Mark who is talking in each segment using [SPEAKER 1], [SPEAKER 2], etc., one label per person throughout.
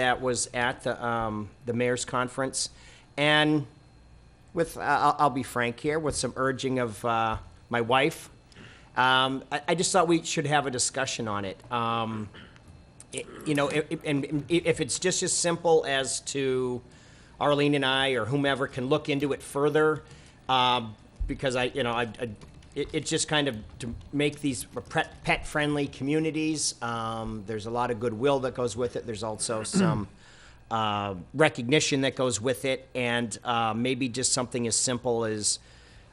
[SPEAKER 1] that was at the, um, the mayor's conference. And with, I- I'll, I'll be frank here, with some urging of, uh, my wife, um, I, I just thought we should have a discussion on it. Um, it- you know, i- i- and i- if it's just as simple as to Arlene and I or whomever can look into it further, um, because I, you know, I, I- it, it's just kind of to make these pet, pet-friendly communities. Um, there's a lot of goodwill that goes with it. There's also some, uh, recognition that goes with it, and uh, maybe just something as simple as,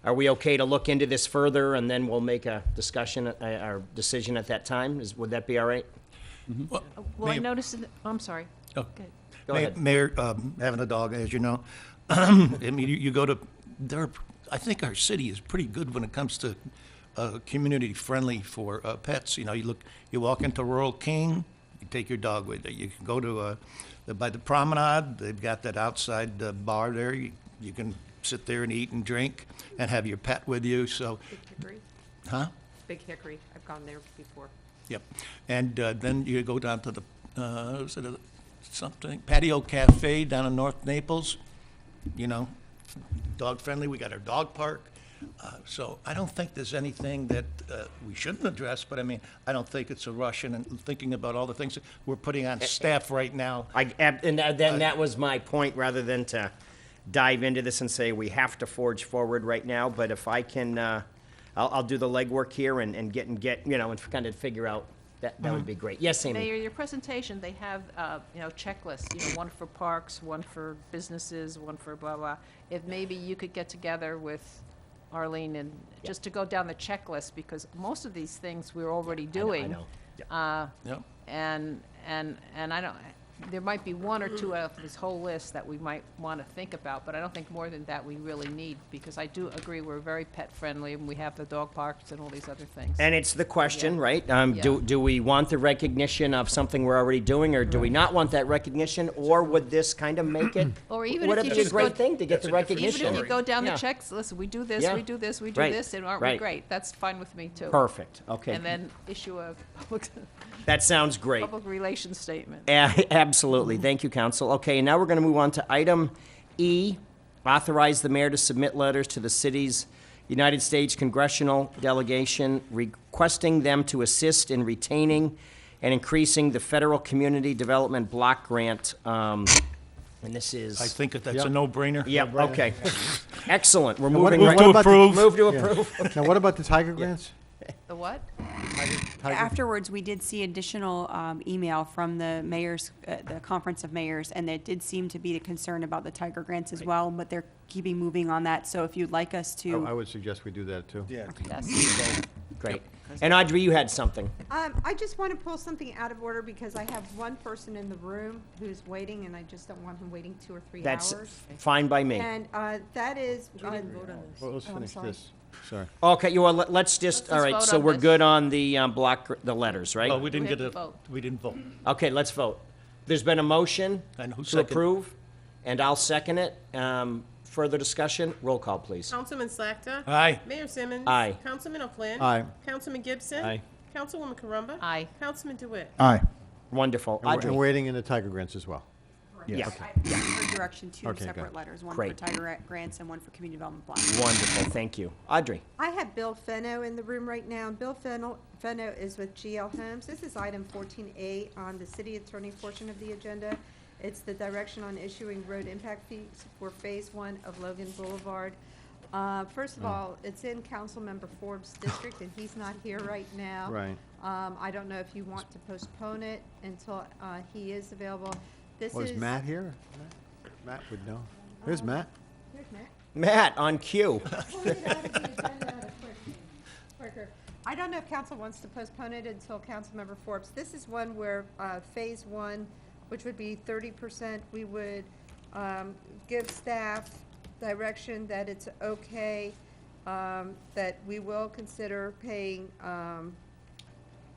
[SPEAKER 1] are we okay to look into this further, and then we'll make a discussion, uh, or decision at that time? Is, would that be all right?
[SPEAKER 2] Well, I
[SPEAKER 3] Mayor-
[SPEAKER 2] noticed, in the- oh, I'm sorry.
[SPEAKER 3] Oh.
[SPEAKER 2] Good.
[SPEAKER 1] Go
[SPEAKER 3] Mayor-
[SPEAKER 1] ahead.
[SPEAKER 3] Mayor, um, having a dog, as you know, I mean, you, you go to, there, are- I think our city is pretty good when it comes to, uh, community friendly for, uh, pets. You know, you look, you walk into Rural King, you take your dog with you. You can go to, uh, the- by the promenade, they've got that outside uh, bar there. You you can sit there and eat and drink and have your pet with you, so,
[SPEAKER 4] Big Hickory,
[SPEAKER 3] huh?
[SPEAKER 4] Big Hickory, I've gone there before.
[SPEAKER 3] Yep. And uh, then you go down to the, uh, was it a- something, Patio Cafe down in North Naples, you know, dog-friendly, we got our dog park. Uh, So I don't think there's anything that uh, we shouldn't address, but I mean, I don't think it's a rush and and thinking about all the things that we're putting
[SPEAKER 1] Eh,
[SPEAKER 3] on staff right now.
[SPEAKER 1] I, ab- and that-
[SPEAKER 3] Uh,
[SPEAKER 1] then that was my point, rather than to dive into this and say we have to forge forward right now, but if I can, uh, I'll, I'll do the legwork here and, and get, and get, you know, and kind of figure out, that, that would
[SPEAKER 3] Mm-hmm.
[SPEAKER 1] be great. Yes, Amy?
[SPEAKER 2] Mayor, your presentation, they have, uh, you know, checklists, you know, one for parks, one for businesses, one for blah, blah. If maybe you could get together with Arlene and, just to go down the checklist, because most of these things we're already
[SPEAKER 1] I know- I
[SPEAKER 2] doing. Um,
[SPEAKER 1] know.
[SPEAKER 3] Yep.
[SPEAKER 2] And, and, and I don't, there might be one or two out of this whole list that we might want to think about, but I don't think more than that we really need, because I do agree, we're very pet-friendly, and we have the dog parks and all these other things.
[SPEAKER 1] And it's the question, right? Um, do,
[SPEAKER 2] Yeah.
[SPEAKER 1] do we want the recognition of something we're already doing, or
[SPEAKER 2] Mm-hmm.
[SPEAKER 1] do we not want that recognition? Or would this kind of make it?
[SPEAKER 2] Or even
[SPEAKER 1] Would
[SPEAKER 2] if
[SPEAKER 1] it
[SPEAKER 2] you
[SPEAKER 1] be a
[SPEAKER 2] just
[SPEAKER 1] great
[SPEAKER 2] go-
[SPEAKER 1] thing to get
[SPEAKER 3] That's
[SPEAKER 1] the
[SPEAKER 3] a different
[SPEAKER 2] Even
[SPEAKER 1] recognition?
[SPEAKER 2] if you go down the
[SPEAKER 1] Yeah.
[SPEAKER 2] checks, listen, we do this,
[SPEAKER 1] Yeah.
[SPEAKER 2] we do this, we do
[SPEAKER 1] Right.
[SPEAKER 2] this, and aren't we
[SPEAKER 1] Right.
[SPEAKER 2] great? That's fine with me, too.
[SPEAKER 1] Perfect, okay.
[SPEAKER 2] And then issue a public,
[SPEAKER 1] That sounds great.
[SPEAKER 2] public relations statement.
[SPEAKER 1] A- Absolutely. Thank you, Council. Okay, now we're going to move on to item E, authorize the mayor to submit letters to the city's United States congressional delegation requesting them to assist in retaining and increasing the federal community development block grant. um, And this is.
[SPEAKER 3] I think that that's a no-brainer.
[SPEAKER 1] Yep, okay. Excellent. We're
[SPEAKER 5] what-
[SPEAKER 1] moving
[SPEAKER 5] what
[SPEAKER 1] right.
[SPEAKER 5] about the-
[SPEAKER 1] Move to
[SPEAKER 5] Yeah.
[SPEAKER 1] approve.
[SPEAKER 5] Now, what about the Tiger grants?
[SPEAKER 2] The what?
[SPEAKER 6] Afterwards, we did see additional um, email from the mayors, uh, the Conference of Mayors, and it did seem to be a concern about the Tiger grants as well, but they're keeping moving on that. So if you'd like us
[SPEAKER 5] I I
[SPEAKER 6] to,
[SPEAKER 5] would suggest we do that, too.
[SPEAKER 3] Yeah.
[SPEAKER 2] Yes.
[SPEAKER 1] Great. And Audrey, you had something.
[SPEAKER 7] Um, I just want to pull something out of order because I have one person in the room who's waiting and I just don't want him waiting two or three
[SPEAKER 1] That's
[SPEAKER 7] hours.
[SPEAKER 1] fine by me.
[SPEAKER 7] And, uh, that is. You didn't vote on
[SPEAKER 5] Well, let's finish this. Sorry.
[SPEAKER 1] Okay, you, well, let- let's just,
[SPEAKER 2] Let's
[SPEAKER 1] all
[SPEAKER 2] just
[SPEAKER 1] right,
[SPEAKER 2] vote
[SPEAKER 1] so
[SPEAKER 2] on
[SPEAKER 1] we're
[SPEAKER 2] this.
[SPEAKER 1] good on the um, block, gr- the letters, right?
[SPEAKER 3] Well, Oh, we didn't
[SPEAKER 2] We have
[SPEAKER 3] get
[SPEAKER 2] to
[SPEAKER 3] a,
[SPEAKER 2] vote.
[SPEAKER 3] we didn't vote.
[SPEAKER 1] Okay, let's vote. There's been a motion
[SPEAKER 3] And who
[SPEAKER 1] to
[SPEAKER 3] second-
[SPEAKER 1] approve, and I'll second it. Um, Further discussion? Roll call, please.
[SPEAKER 4] Councilman Slakta.
[SPEAKER 3] Aye.
[SPEAKER 4] Mayor Simmons.
[SPEAKER 1] Aye.
[SPEAKER 4] Councilman O'Flynn.
[SPEAKER 5] Aye.
[SPEAKER 4] Councilman Gibson.
[SPEAKER 1] Aye.
[SPEAKER 4] Councilwoman Corumba.
[SPEAKER 2] Aye.
[SPEAKER 4] Councilman DeWitt.
[SPEAKER 5] Aye.
[SPEAKER 1] Wonderful.
[SPEAKER 5] And we're- and
[SPEAKER 1] Audrey?
[SPEAKER 5] waiting in the Tiger grants as well.
[SPEAKER 1] Yeah,
[SPEAKER 6] I heard direction, two
[SPEAKER 5] Okay,
[SPEAKER 6] separate
[SPEAKER 5] good.
[SPEAKER 6] letters, one for
[SPEAKER 1] Great.
[SPEAKER 6] Tiger grants and one for community development block.
[SPEAKER 1] wonderful, thank you. Audrey?
[SPEAKER 7] I have Bill Fenno in the room right now. and Bill Fenno, Fenno is with GL Homes. This is item fourteen A on the city attorney portion of the agenda. It's the direction on issuing road impact fees for phase one of Logan Boulevard. Uh, first of
[SPEAKER 5] Mm.
[SPEAKER 7] all, it's in council member Forbes' district and he's not here right now.
[SPEAKER 5] Right.
[SPEAKER 7] Um, I don't know if you want to postpone it until, uh, he is available. This
[SPEAKER 5] Was
[SPEAKER 7] is.
[SPEAKER 5] Oh, Matt here? Matt- Matt would know. There's Matt.
[SPEAKER 7] Here's Matt.
[SPEAKER 1] Matt, on cue.
[SPEAKER 7] Pull it out of the agenda quick- quicker. I don't know if council wants to postpone it until Councilmember Forbes. This is one where uh, Phase One, which would be thirty percent, we would um, give staff direction that it's okay, um, that we will consider paying um,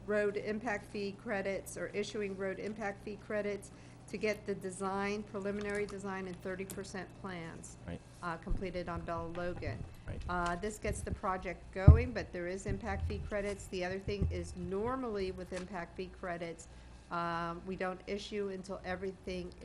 [SPEAKER 7] road impact fee credits or issuing road impact fee credits to get the design, preliminary design and thirty percent plans
[SPEAKER 1] Right.
[SPEAKER 7] uh, completed on Bella Logan.
[SPEAKER 1] Right.
[SPEAKER 7] Uh, This gets the project going, but there is impact fee credits. uh, The other thing is normally with impact fee credits, Um, We don't issue until everything